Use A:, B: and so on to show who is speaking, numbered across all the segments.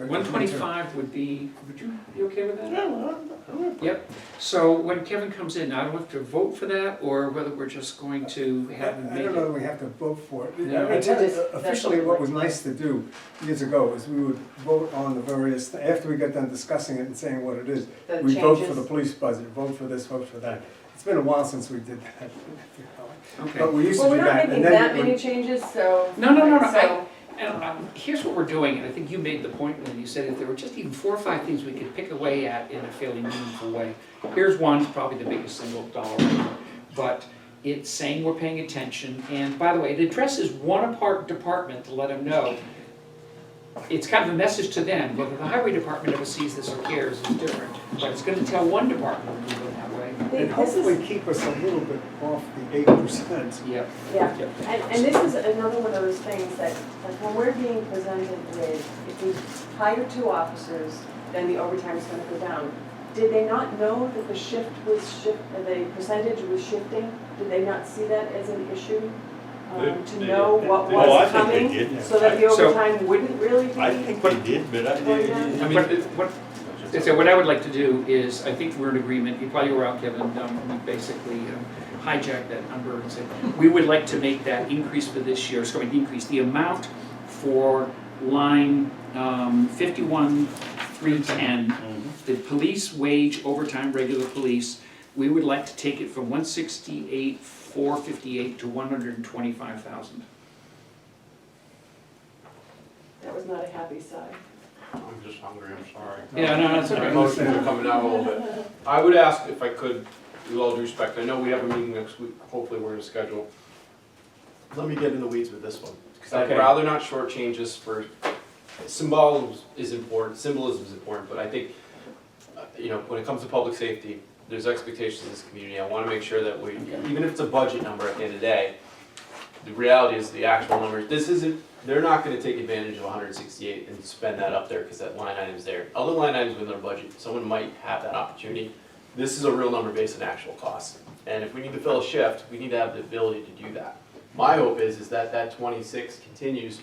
A: One twenty-five would be, would you be okay with that?
B: Yeah, well, I'm gonna put-
A: So when Kevin comes in, I don't have to vote for that, or whether we're just going to have him
B: I
A: make
B: don't know
A: it?
B: that we have to vote for it.
A: No.
B: I tell you,
C: That's- that's
B: Officially,
C: what
B: what was
C: we-
B: nice to do years ago is we would vote on the various, after we got done discussing it and saying what it is,
C: The
B: we vote for
C: changes.
B: the police budget, vote for this, vote for that. It's been a while since we did that. But
A: Okay.
B: we used to
C: Well,
B: do
C: we're not
B: that,
C: making
B: and then
C: that
B: it
C: many
B: would-
C: changes, so.
A: No, no, no, no,
C: So,
A: And um, here's what we're doing, and I think you made the point when you said if there were just even four or five things we could pick away at in a fairly meaningful way. Here's one, probably the biggest single dollar, amount, but it's saying we're paying attention, and by the way, it addresses one apart department to let them know. It's kind of a message to them, whether the highway department ever sees this or cares is different, but it's gonna tell one department we're moving that way.
B: and
C: this is,
B: hopefully keep us a little bit off the eight percent.
A: Yep,
C: yeah,
A: yep.
C: and, and this is another one of those things that, like, when we're being presented with, if we hire two officers, then the overtime is gonna go down. Did they not know that the shift was shift, uh, the percentage was shifting? Did they not see that as an issue? Um,
D: They-
C: to
D: they-
C: know
D: they-
C: what
D: they-
B: oh,
C: was
D: I think they
C: coming,
D: did.
C: so that the
A: I- so-
C: overtime wouldn't really be.
D: I think they did, but I,
C: Well, yeah.
A: I
D: I
A: mean,
D: mean,
A: what, so what I would like to do is, I think we're in agreement, you probably were out, Kevin, um, we basically um, hijacked that number and said, we would like to make that increase for this year, so an increase, the amount for line um, fifty-one, three ten, the police wage overtime, regular police, we would like to take it from one sixty-eight, four fifty-eight to one hundred and twenty-five thousand.
C: That was not a happy sigh.
D: I'm just hungry, I'm sorry.
A: Yeah, no, that's
E: My
A: okay.
E: emotions are coming out a little bit. I would ask if I could, with all due respect, I know we have a meeting next week, hopefully we're gonna schedule. Let me get in the weeds with this one, because I'd
A: Okay.
E: rather not shortchange this for, symbolism is important, symbolism is important, but I think, uh, you know, when it comes to public safety, there's expectations in this community, I wanna make sure that we,
A: Okay.
E: even if it's a budget number at the end of the day, the reality is the actual numbers, this isn't, they're not gonna take advantage of hundred and sixty-eight and spend that up there, cause that line item's there. Other line items within their budget, someone might have that opportunity. This is a real number based on actual cost, and if we need to fill a shift, we need to have the ability to do that. My hope is, is that that twenty-six continues,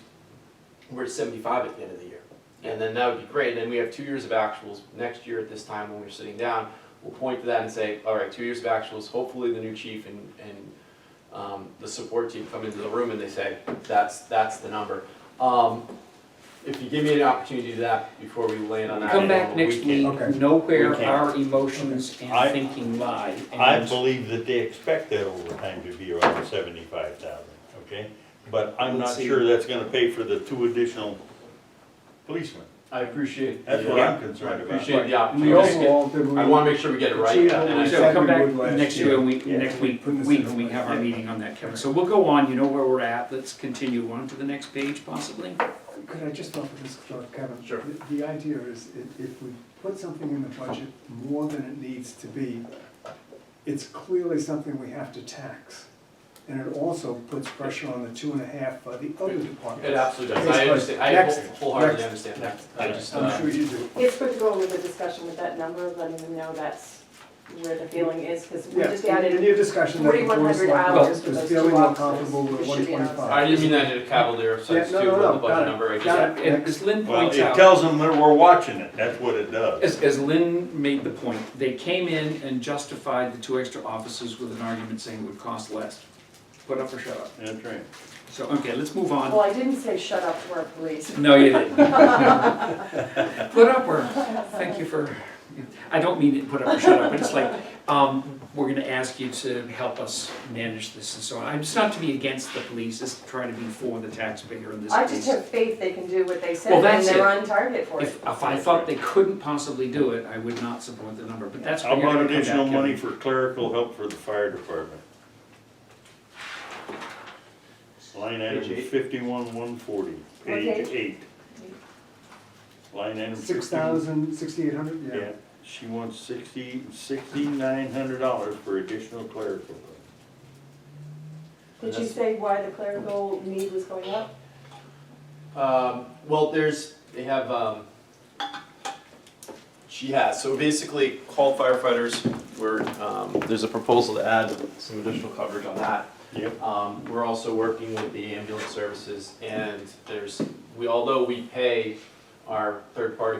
E: we're at seventy-five at the end of the year. And then that would be great, then we have two years of actuals, next year at this time when we're sitting down, we'll point to that and say, all right, two years of actuals, hopefully the new chief and, and um, the support team come into the room and they say, that's, that's the number. Um, if you give me an opportunity to do that before we land on that.
A: Come back
E: we
A: next
E: can-
A: week,
B: Okay.
A: know where
D: We can.
A: our emotions
D: I-
A: and thinking lie.
D: I
A: and-
D: believe that they expect that overtime to be around seventy-five thousand, okay? But I'm not sure that's gonna pay for the two additional policemen.
E: I appreciate.
D: That's what I'm concerned
E: I
D: about.
E: appreciate the
B: We
E: opportunity.
B: overall, did we?
E: I wanna make sure we get it right.
B: Achieve
E: and I-
B: what we
A: So
B: said
A: come back
B: would last
A: next
B: year.
A: year, and we,
D: Yeah.
A: next week,
B: Put this
A: week
B: in
A: when we have our
B: place.
A: meeting on that, Kevin. So we'll go on, you know where we're at, let's continue on to the next page possibly.
B: Could I just offer this, uh, Kevin?
E: Sure.
B: The- The idea is, i- if we put something in the budget more than it needs to be, it's clearly something we have to tax. And it also puts pressure on the two and a half by the other
E: It
B: departments.
E: absolutely does. I
B: Next,
E: understand, I
B: next,
E: whole- wholeheartedly
B: next.
E: understand that. I just, uh,
B: I'm sure you do.
C: It's good to go over the discussion with that number, letting them know that's where the feeling is, because we
B: Yeah,
C: just
B: In
C: added,
B: your discussion, that the board
C: 4,100 hours
B: selectmen
C: for
B: was
C: those
B: feeling
C: two
B: more
C: officers.
B: comfortable with
C: It should
B: one
C: be announced.
B: twenty-five.
E: I didn't mean that in a cavalier sense too,
B: Yeah, no, no,
E: with the
B: no,
E: budget
B: got it,
E: number. I just-
B: got
A: And as Lynn
D: Well,
A: points
D: it
A: out,
D: tells them that we're watching it, that's what it does.
A: as, as Lynn made the point, they came in and justified the two extra officers with an argument saying it would cost less. Put up or shut up.
D: That's right.
A: So, okay, let's move
C: well,
A: on.
C: I didn't say shut up to our police.
A: No, you didn't. Put up or, thank you for, I don't mean it, put up or shut up, but it's like, um, we're gonna ask you to help us manage this and so on. It's not to be against the police, it's trying to be for the taxpayer in this
C: I
A: case.
C: just have faith they can do what they said,
A: Well,
C: and
A: that's
C: they're
A: it.
C: on target for it.
A: If, if I thought they couldn't possibly do it, I would not support the number, but that's.
D: How
A: where you're
D: about
A: gonna come back,
D: additional money
A: Kevin.
D: for clerical help for the fire department? Line item
E: Page eight.
D: fifty-one, one forty,
C: What page?
D: page eight. Line item
B: Six
D: 51.
B: thousand, sixty-eight hundred, yeah.
D: Yeah, she wants sixty, sixty-nine hundred dollars for additional clerical.
C: Did you say why the clerical need was going up?
E: Um, well, there's, they have, um, she has, so basically call firefighters, we're, um, there's a proposal to add some additional coverage on that.
D: Yep.
E: Um, we're also working with the ambulance services and there's, we, although we pay our third-party